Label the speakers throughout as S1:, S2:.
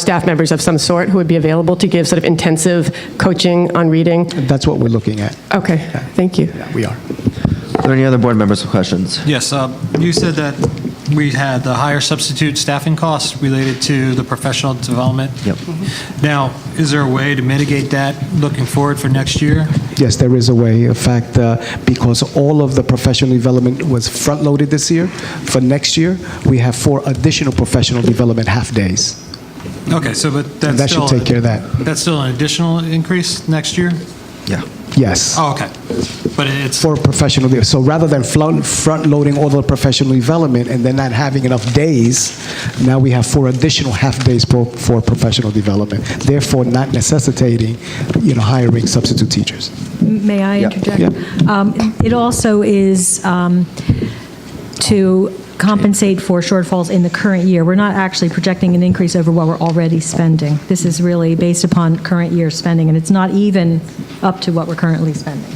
S1: staff members of some sort who would be available to give sort of intensive coaching on reading?
S2: That's what we're looking at.
S1: Okay, thank you.
S2: We are.
S3: Are there any other board members with questions?
S4: Yes, uh, you said that we had the higher substitute staffing costs related to the professional development. Mm-hmm.
S3: Yep.
S4: Now, is there a way to mitigate that looking forward for next year?
S2: Yes, there is a way. In fact, uh, because all of the professional development was front-loaded this year, for next year, we have four additional professional development half-days.
S4: Okay, so but that's
S2: That should
S4: still.
S2: take care of that.
S4: That's still an additional increase next year?
S3: Yeah.
S2: Yes.
S4: Oh, okay. But it's,
S2: For professional, de- so rather than flo- front-loading all the professional development and then not having enough days, now we have four additional half-days for, for professional development, therefore not necessitating, you know, hiring substitute teachers.
S5: May I interject? Um, It also is um, to compensate for shortfalls in the current year. We're not actually projecting an increase over what we're already spending. This is really based upon current year spending, and it's not even up to what we're currently spending.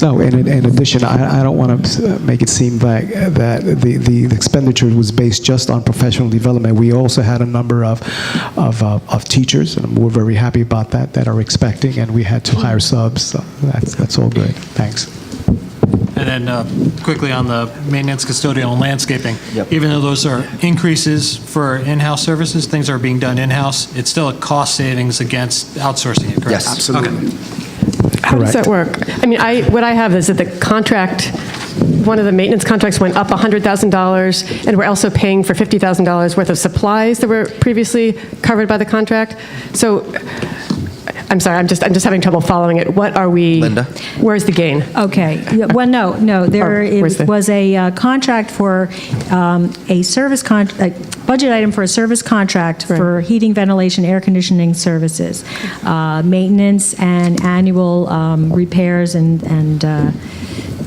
S2: No, and in- in addition, I I don't want to make it seem like uh, that the the expenditure was based just on professional development. We also had a number of of uh, of teachers, and we're very happy about that, that are expecting, and we had to hire subs, so that's that's all good. Thanks.
S4: and then uh, quickly on the maintenance, custodial, and landscaping.
S3: Yep.
S4: Even though those are increases for in-house services, things are being done in-house, it's still a cost savings against outsourcing it, correct?
S3: Yes. Absolutely.
S4: Okay.
S1: How does
S2: Correct.
S1: that work? I mean, I, what I have is that the contract, one of the maintenance contracts went up $100,000, and we're also paying for $50,000 worth of supplies that were previously covered by the contract. So, I'm sorry, I'm just, I'm just having trouble following it. What are we?
S3: Linda?
S1: Where's the gain?
S5: Okay, Yeah, well, no, no, there
S1: Oh, where's the-
S5: it was a uh, contract for um, a service con, a budget item for a service contract for heating, ventilation, air conditioning services, uh, maintenance and annual um, repairs and, and uh,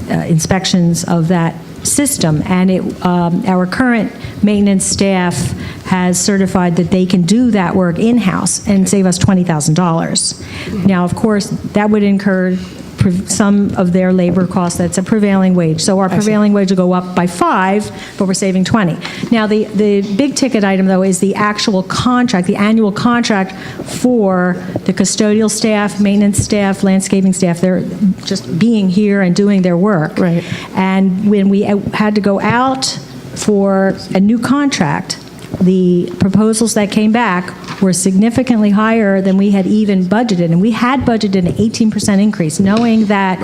S5: uh, inspections of that system. And it, um, our current maintenance staff has certified that they can do that work in-house and save us $20,000. Now, of course, that would incur prev- some of their labor costs, that's a prevailing wage. So our prevailing wage will go up by five, but we're saving 20. Now, the, the big ticket item, though, is the actual contract, the annual contract for the custodial staff, maintenance staff, landscaping staff, they're just being here and doing their work.
S1: Right.
S5: And when we uh, had to go out for a new contract, the proposals that came back were significantly higher than we had even budgeted. And we had budgeted an 18% increase, knowing that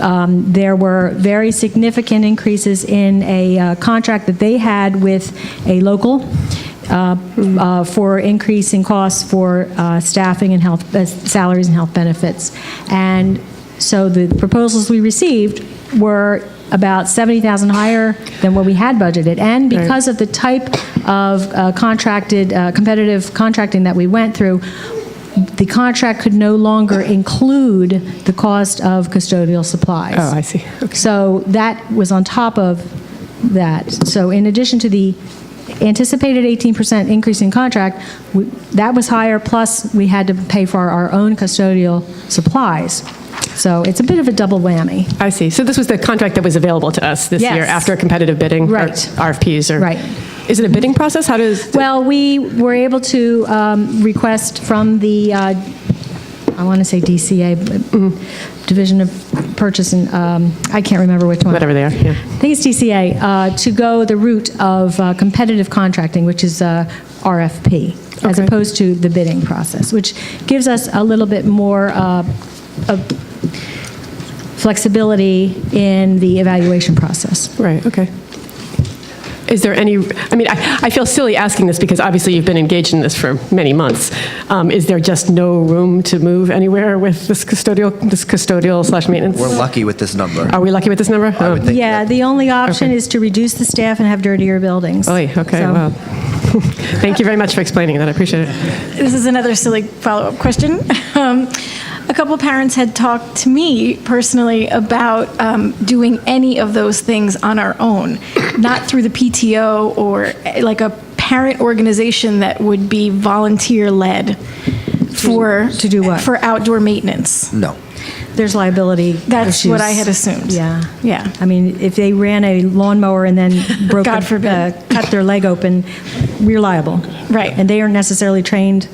S5: um, there were very significant increases in a uh, contract that they had with a local uh, uh, for increasing costs for uh, staffing and health, uh, salaries and health benefits. And so the proposals we received were about 70,000 higher than what we had budgeted. And because of the type of uh, contracted, uh, competitive contracting that we went through, the contract could no longer include the cost of custodial supplies.
S1: Oh, I see.
S5: So that was on top of that. So in addition to the anticipated 18% increase in contract, we- that was higher, plus we had to pay for our own custodial supplies. So it's a bit of a double whammy.
S1: I see. So this was the contract that was available to us this
S5: Yes.
S1: year after competitive bidding? or
S5: Right.
S1: RFPs or?
S5: Right.
S1: Is it a bidding process? How does?
S5: Well, we were able to um, request from the, uh, I want to say DCA, but Division of Purchase, and um, I can't remember which one.
S1: Whatever they are, yeah.
S5: I think it's DCA, uh, to go the route of uh, competitive contracting, which is uh, RFP, as
S1: Okay.
S5: opposed to the bidding process, which gives us a little bit more uh, of flexibility in the evaluation process.
S1: Right, okay. Is there any, I mean, I I feel silly asking this because obviously you've been engaged in this for many months. Um, Is there just no room to move anywhere with this custodial, this custodial slash maintenance?
S3: We're lucky with this number.
S1: Are we lucky with this number? I
S3: would think-
S5: Yeah, the only option is to reduce the staff and have dirtier buildings.
S1: Oh, okay,
S5: So-
S1: wow. Thank you very much for explaining that, I appreciate it.
S6: This is another silly follow-up question. Um, a couple parents had talked to me personally about um, doing any of those things on our own, not through the PTO or eh, like a parent organization that would be volunteer-led for
S5: To do what?
S6: for outdoor maintenance.
S3: No.
S5: There's liability
S6: That's what I
S5: issues.
S6: had assumed.
S5: Yeah.
S6: Yeah.
S5: I mean, if they ran a lawnmower and then broke,
S6: God
S5: a-
S6: forbid.
S5: uh, cut their leg open, reliable.
S6: Right.
S5: And they aren't necessarily trained